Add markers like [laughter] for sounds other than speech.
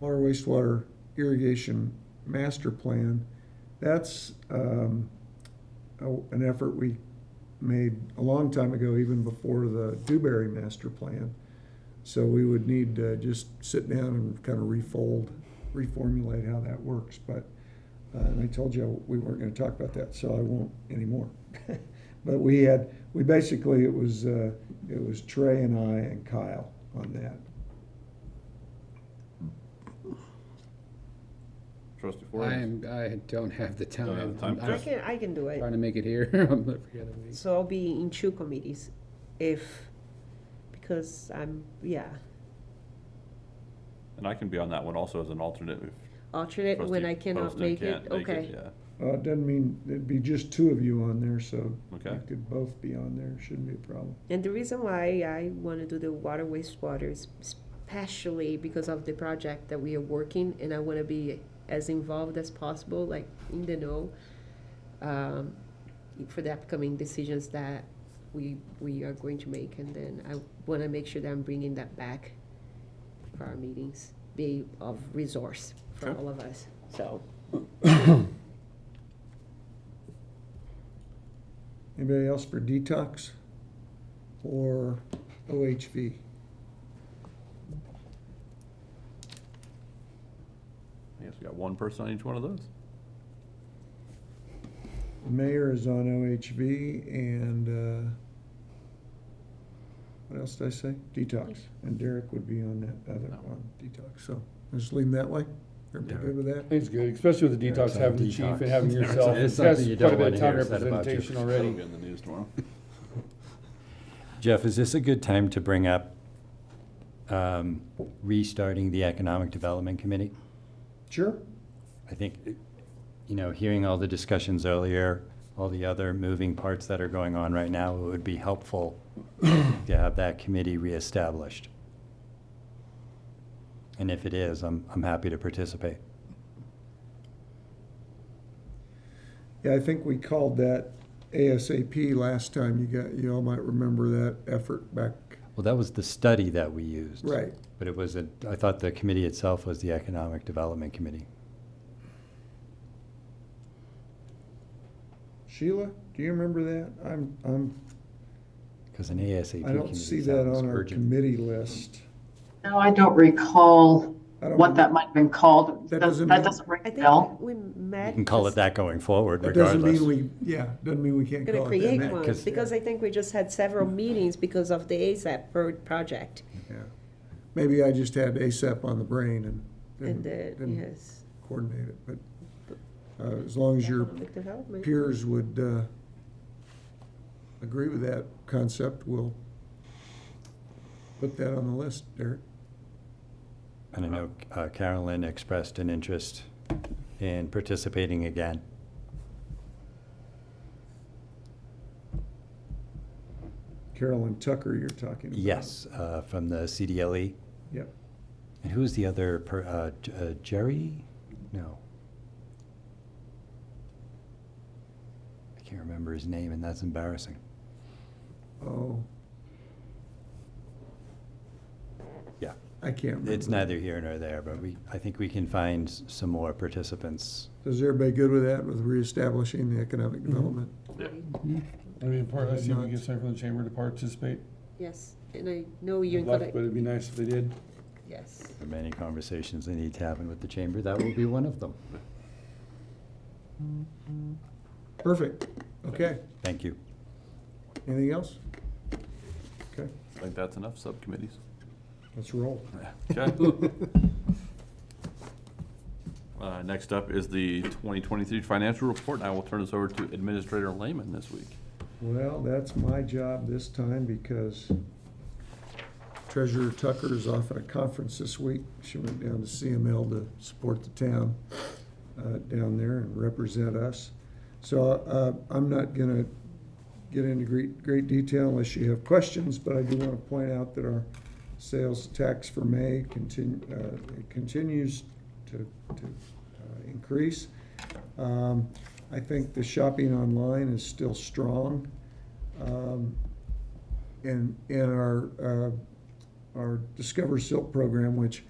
water wastewater irrigation master plan. That's um, a- an effort we made a long time ago, even before the Dewberry master plan. So we would need to just sit down and kind of refold, reformulate how that works. But, uh, and I told you we weren't going to talk about that, so I won't anymore. [laughs] But we had, we basically, it was, uh, it was Trey and I and Kyle on that. Trustee I Flores? am, I don't have the Don't have time. the time. I'm Sure. I'm I can, I can do it. trying to make it here. [laughs] I'm every other week. So I'll be in two committees if, because I'm, yeah, And I can be on that one also as an alternate if alternate when trustee I cannot Poston make can't it, make okay. Yeah, Uh, it doesn't mean, it'd be just two of you on there, so okay. you could both be on there, shouldn't be a problem. And the reason why I want to do the water wastewater is especially because of the project that we are working, and I want to be as involved as possible, like in the know, um, for the upcoming decisions that we we are going to make, and then I want to make sure that I'm bringing that back for our meetings, be of resource for Okay. all of us. So Anybody else for detox or OHV? I guess we got one person on each one of those. Mayor is on OHV and, uh, what else did I say? Detox. And Derek would be on that other That one, detox, so just leave him that way. Everybody good with that? I think it's good, especially with the Eric's detox, on having the chief and detox. having Eric's yourself. on- [laughs] It's it's something got you quite a don't bit of wanna hear town said about you. [laughs] representation That'll already. be in the news [laughs] tomorrow. Jeff, is this a good time to bring up um, restarting the Economic Development Committee? Sure. I think, you know, hearing all the discussions earlier, all the other moving parts that are going on right now, it would be helpful [coughs] to have that committee reestablished. And if it is, I'm, I'm happy to participate. Yeah, I think we called that ASAP last time. You got, you all might remember that effort back. Well, that was the study that we used. Right. But it was, a. I thought the committee itself was the Economic Development Committee. Sheila, do you remember that? I'm, I'm, Because an ASAP I committee don't see that sounds on our urgent. committee list. No, I don't recall I don't what that might have been called. That That doesn't that mean- doesn't ring I a think bell. we met. You can call it that going forward That doesn't regardless. mean we, yeah, doesn't mean we can't Gonna call it that. create now. one, 'cause- because I think we just had several meetings because of the ASAP pro- project. Yeah. Maybe I just had ASAP on the brain and And uh, didn't, the, didn't yes. coordinate it, but uh, as long as your economic development. peers would uh, agree with that concept, we'll put that on the list, Derek. And I know uh, Carolyn expressed an interest in participating again. Carolyn Tucker you're talking about. Yes, uh, from the CDLE. Yep. E. And who was the other, per- uh, J- uh, Jerry? No. I can't remember his name, and that's embarrassing. Oh. Yeah. I can't remember. It's neither here nor there, but we, I think we can find s- some more participants. Is everybody good with that, with reestablishing the economic development? I mean, part, I see if we Not- can get someone from the chamber to participate. Yes, and I know Good you're luck, gonna, But it'd be nice if they did. yes. There are many conversations that need to happen with the chamber. That will be one of them. Perfect. Okay. Thank you. Anything else? Okay, I think that's enough [laughs] subcommittees. let's roll. Okay. Uh, Next up is the 2023 financial report, and I will turn this over to Administrator Lehman this week. Well, that's my job this time because Treasurer Tucker is off at a conference this week. She went down to CML to support the town uh, down there and represent us. So uh, I'm not going to get into great, great detail unless you have questions, but I do want to point out that our sales tax for May continue, continues to, to uh, increase. Um, I think the shopping online is still strong. Um, And, and our, uh, our Discover Silk program, which